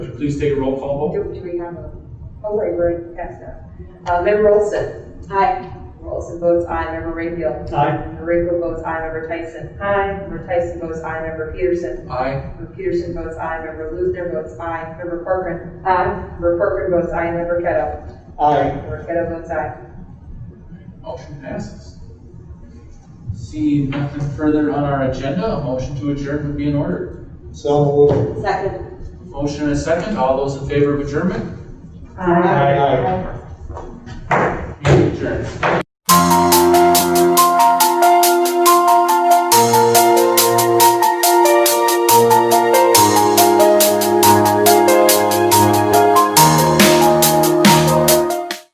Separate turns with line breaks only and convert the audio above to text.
please take a roll call vote.
Do, do we have a, oh, wait, we're past that. Uh, Member Olson. Aye. Member Olson votes aye. Member Rayfield.
Aye.
Member Rayfield votes aye. Member Tyson. Aye. Member Tyson votes aye. Member Peterson.
Aye.
Member Peterson votes aye. Member Luther votes aye. Member Corcoran. Aye. Member Corcoran votes aye. Member Kettle.
Aye.
Member Kettle votes aye.
Motion passes. Seeing nothing further on our agenda, a motion to adjourn would be in order.
So moved.
Second.
Motion and a second, all those in favor of adjournment,
Aye.
meeting adjourned.